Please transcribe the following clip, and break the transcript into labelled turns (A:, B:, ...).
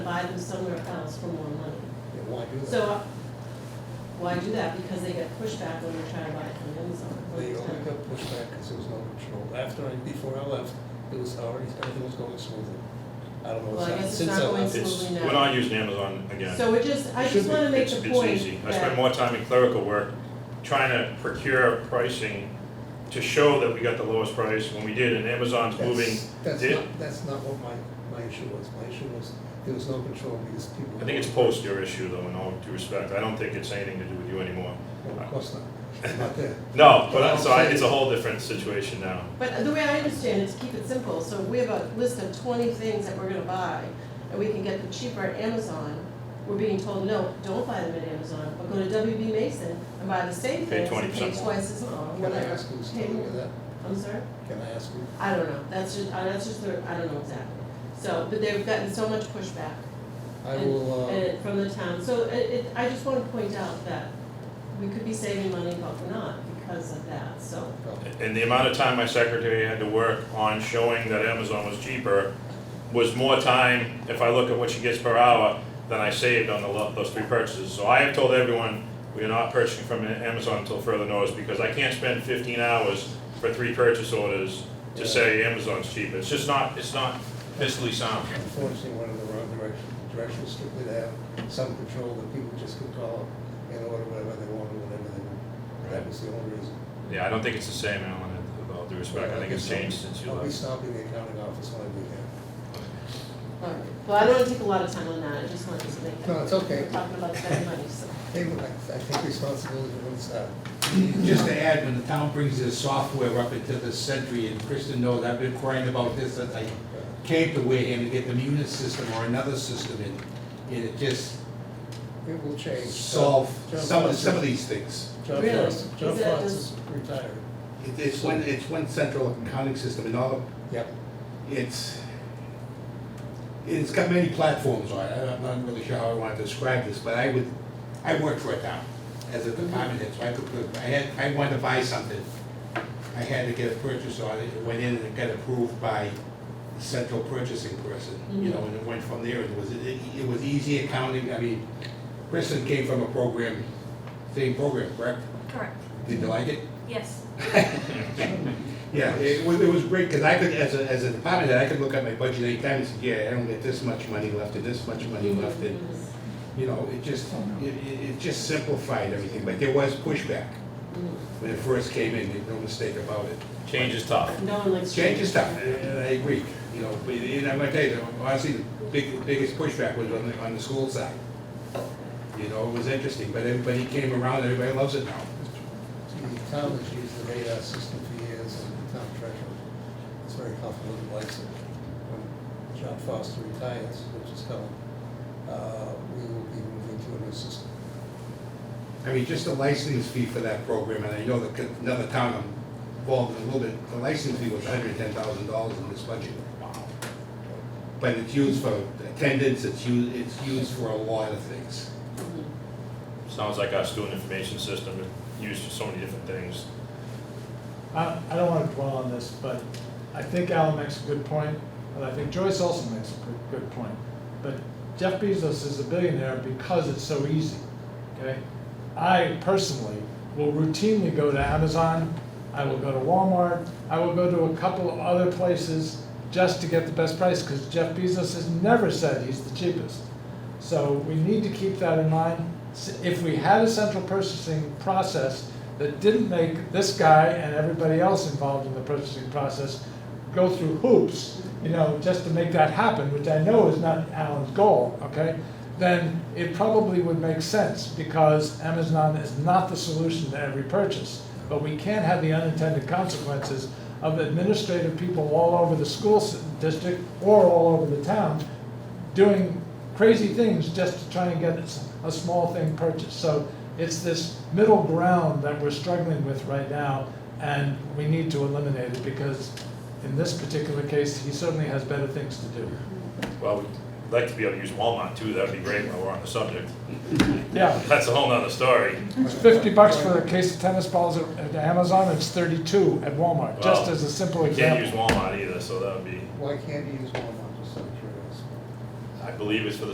A: buy them somewhere else for more money.
B: Yeah, why do that?
A: So why do that? Because they get pushback when you're trying to buy it from Amazon. all
B: They
A: the
B: only
A: time.
B: got pushed back because there was no control. After I, before I left, it was already, everything was going smoothly. I don't know
A: Well,
B: what's
A: I
B: happened
A: guess it's
B: since
A: not
B: I
A: going
B: left.
C: It's,
A: Absolutely not.
C: we're not using Amazon again.
A: So it just, I
B: It
A: just
B: should
A: wanna make
C: It's,
A: the
C: it's easy.
A: point
C: I spend
A: that,
C: more time in clerical work trying to procure pricing to show that we got the lowest price when we did, and Amazon's
B: That's-
C: moving.
B: That's
C: Did-
B: not, that's not what my, my issue was. My issue was, there was no control because people.
C: I think it's post your issue though, in all due respect. I don't think it's anything to do with you anymore.
B: Well, Of course not, I'm not there.
C: No, but I- so I, it's a whole different situation now.
A: but the way I understand it, to keep it simple, so if we have a list of twenty things that we're gonna buy, and we can get them cheaper at Amazon, we're being told, no, don't buy them at Amazon, but go to WB Mason and buy the same
C: Pay
A: things, and
C: 20%
A: pay
C: more.
A: twice as much,
B: Can I
A: whatever.
B: ask who's
A: Pay
B: telling
A: more.
B: you that?
A: I'm sorry?
B: Can I ask you?
A: I don't know, that's just, uh, that's just, the- I don't know exactly. So, but they've gotten so much pushback
B: I
A: and-
B: will, uh,
A: and- from the town, so it, it, I just wanna point out that we could be saving money, but we're not because of that, so.
B: well,
C: And the amount of time my secretary had to work on showing that Amazon was cheaper was more time, if I look at what she gets per hour, than I saved on the, lo- those three purchases. So I have told everyone, we are not purchasing from Amazon until further notice, because I can't spend fifteen hours for three purchase orders to say Amazon's cheaper. It's just not, it's not fiscally sound.
B: unfortunately, went in the wrong direction. The Direction was strictly to have some control that people just could call up and order whatever they wanted, whenever they wanted. That
C: Right.
B: was the only reason.
C: Yeah, I don't think it's the same, Alan, with all due respect. I think it's changed since you
B: I'll be
C: left.
B: stopping the accounting office when I do that.
A: Alright, well, I don't wanna take a lot of time on that, I just wanted to make.
B: No, it's okay.
A: We're Talking about saving money, so.
B: Hey, look, I, I take responsibility for what's done.
D: Just to add, when the town brings this software up into the century, and Kristen knows, I've been crying about this since I came to Wareham to get the Munis system or another system in. And it just
B: It will change.
D: solved
B: John
D: some of,
B: Foster-
D: some of these things.
B: John
A: Really?
B: Foster, John
A: Is that
B: Fox is
A: just-
B: retired.
D: It- It's one, it's one central accounting system and all,
B: Yep.
D: it's, it's got many platforms on it. I'm not really sure how I want to describe this, but I would, I worked for a town as a department head, so I could, put- I had, I wanted to buy something. I had to get a purchase order, it went in and it got approved by the central purchasing person, you know, and it went from there, it was, it, it was easy accounting, I mean, Kristen came from a program, same program, correct?
E: Correct,
D: Did you like it?
E: yes.
D: Yeah, it was, it was great, because I could, as a, as a department head, I could look at my budget anytime and say, yeah, I don't get this much money left and this much money left, and,
A: Mm-hmm.
D: you know, it just, it, it it just simplified everything, but there was pushback
A: Mm.
D: when it first came in, there's no mistake about it.
C: Change is tough.
A: No one likes.
D: Change is tough, and I agree, you know, but, and I'm gonna tell you, honestly, the big, biggest pushback was on the, on the school side. You know, it was interesting, but everybody came around, everybody loves it now.
B: The town has used the radar system for years, and the town treasurer is very comfortable and likes it. When John Foster retires, which is coming, uh, we will be moving to a new system.
D: I mean, just the license fee for that program, and I know that another town I'm involved in a little bit, the license fee was hundred and ten thousand dollars in this budget. But it's used for attendance, it's used, it's used for a lot of things.
A: Mhm.
C: Sounds like our student information system is used for so many different things.
F: I, I don't wanna dwell on this, but I think Alan makes a good point, and I think Joyce also makes a good, good point. But Jeff Bezos is a billionaire because it's so easy, okay? I personally will routinely go to Amazon, I will go to Walmart, I will go to a couple of other places just to get the best price, cause Jeff Bezos has never said he's the cheapest. So we need to keep that in mind. S- If we had a central purchasing process that didn't make this guy and everybody else involved in the purchasing process go through hoops, you know, just to make that happen, which I know is not Alan's goal, okay? Then it probably would make sense because Amazon is not the solution to every purchase. But we can't have the unintended consequences of administrative people all over the school s- district or all over the town doing crazy things just to try and get s- a small thing purchased. So it's this middle ground that we're struggling with right now, and we need to eliminate it because in this particular case, he certainly has better things to do.
C: Well, we'd like to be able to use Walmart too, that'd be great while we're on the subject.
F: Yeah,
C: That's a whole nother story.
F: it's fifty bucks for a case of tennis balls at at Amazon, it's thirty-two at Walmart, just
C: Wow.
F: as a simple
C: You Can't use
F: example.
C: Walmart either, so that would be,
B: Why can't you use Walmart, just out of curiosity?
C: I believe it's for the